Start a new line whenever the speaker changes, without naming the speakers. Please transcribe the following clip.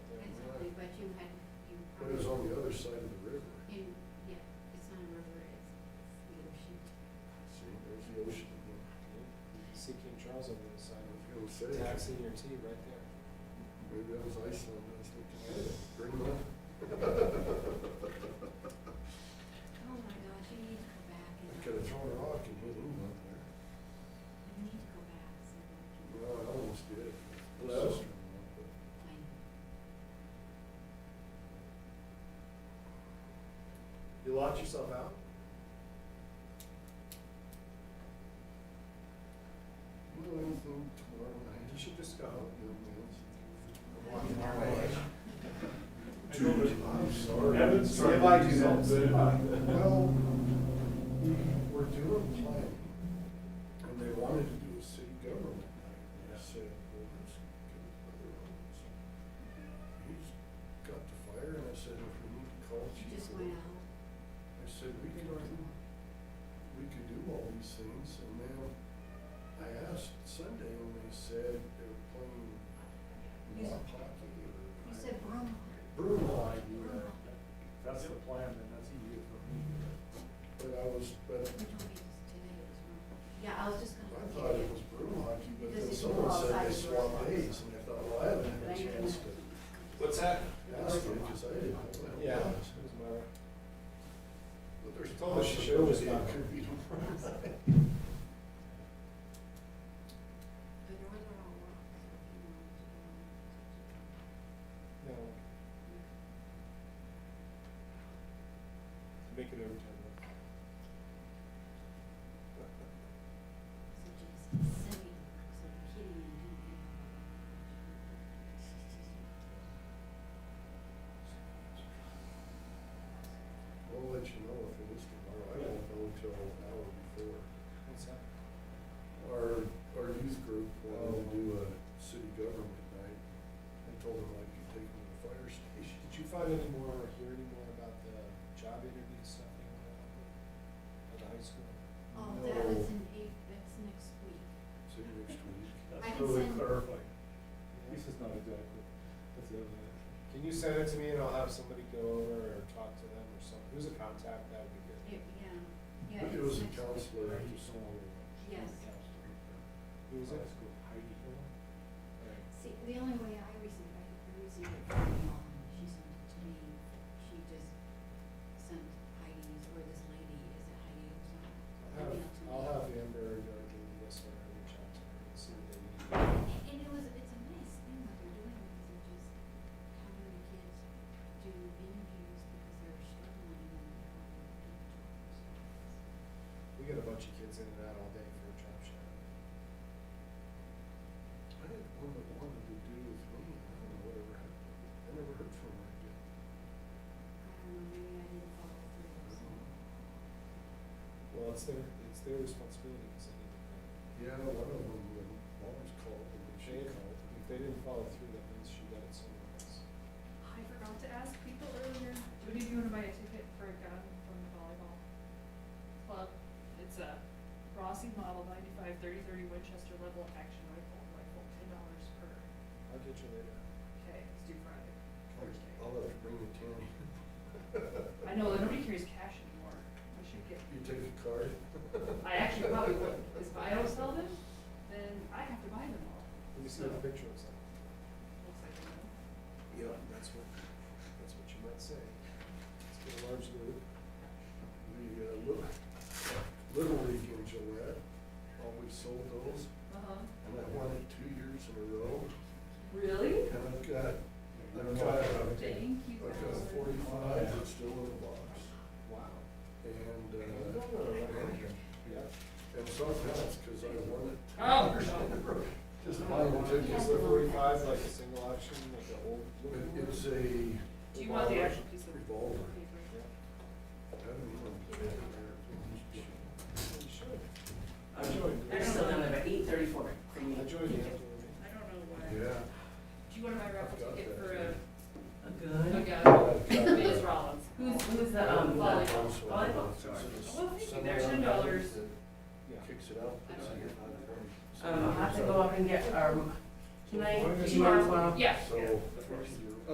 senior tee right there.
Maybe that was Iceland, I was looking at it, Greenland.
Oh my gosh, you need to go back and.
I could have thrown a rock and hit him out there.
You need to go back so that I can
No, I almost did.
Hello?
find.
You locked yourself out? Well, I think tomorrow night.
You should just go.
Dude, I'm sorry.
Evan, see if I can help.
Well, we were doing planning, and they wanted to do a city government night. And I said, well, let's get a brother on this. He's got the fire, and I said, if we need to call
You
chief.
just went out.
I said, we can, we could do all these things, and then I asked Sunday, and they said they were playing
You s-
rock hockey or.
You said broom.
Brewline,
Broom.
That's the plan, then that's EU for
but I was, but
Which one is today? It was broom. Yeah, I was just gonna.
I
look
thought
at
it was brew hockey, but
Because if
then
you
someone
go
said they
outside, you're
swapped
outside.
days, and I thought, well, I haven't had a chance to
What's that?
ask them, because I didn't know what it
Yeah.
was.
Who's Myra?
But there's
Told us she showed us not.
possibility it could be tomorrow.
The northern all rock.
No, make it overtime.
So just semi, so kidding and doing.
We'll let you know if it is tomorrow, I won't know till an hour before.
What's that?
Our, our youth group wanted to do a city government night, I told them I could take them to the fire station.
Did you find any more or hear any more about the job interview stuff they were going on at the high school?
Oh, that was
No.
in eight, that's next week.
See you next week.
I
That's
can
really
send-
clarifying.
Yeah.
This is not exactly, that's the other one.
Can you send it to me and I'll have somebody go over or talk to them or something? Who's a contact? That would be good.
It, yeah, yeah.
Maybe it
it's
was
next
a
week.
counselor
Heidi
or someone.
Hill.
Yes.
Who was it?
High school, Heidi Hill.
See, the only way I received, I received it from my mom, she sent it to me, she just sent Heidi's, or this lady, is it Heidi or something?
I'll have, I'll have Amber go do this one and reach out to her and see what they need.
And it was, it's a nice thing that they're doing, because they're just having the kids do interviews because they're struggling and they're having to do jobs.
We get a bunch of kids in and out all day for a job shot.
I had one that wanted to do with me, and I don't know whatever happened, I never heard from her again.
I don't know, maybe I didn't follow through or something.
Well, it's their, it's their responsibility because they need to pay.
Yeah, one of them, when mom's called, and then she
They-
called.
If they didn't follow through, that means she got it somewhere else.
I forgot to ask people earlier, do any of you wanna buy a ticket for a gun from the volleyball club? It's a Rossi model ninety-five thirty thirty Winchester level action rifle, rifle, ten dollars per,
I'll get you later.
okay, it's due Friday, Thursday.
I'll have to bring the tin.
I know, that nobody carries cash anymore, I should get,
You take a card?
I actually probably would, because if I don't sell them, then I have to buy them all,
Let me see the picture of something.
looks like, you
Yeah,
know.
that's what, that's what you might say. It's been a large group.
The, uh, Little, Little League in Gillette, always sold those,
Uh-huh,
and I won it two years in a row,
really? Oh
and I've got, I've
Hill.
got, I've
Thank you,
got
Bowser.
forty-five that's still in the box,
Wow.
and,
I'm
uh,
going on a record here. Yeah.
and sometimes, cause I won it. two
Oh.
years in a row. Oh,
Just buying the tickets,
Yeah.
the forty-five, like a single auction, like an old.
It- It's a.
Do you want the actual piece of
Revolver.
paper?
Yeah.
I haven't even played there.
You should. I
I
They're
joined.
don't-
still down there at eight thirty-four for me.
I joined you.
I don't know why.
Yeah.
Do you want my raffle
I've got that
ticket for
too.
a,
A good.
like
I've
a,
got
Ms.
that.
Rollins?
Who's, who's the, um,
Well,
volleyball,
that's what I
volleyball?
thought. It's
Well, thank you.
someone
There's ten dollars.
Yeah.
that Kicks it out. puts it in the front.
Um, I have to go up and get, um, can I,
Why don't
do
you-
you want, well,
Yeah.
So,
That's what I should do.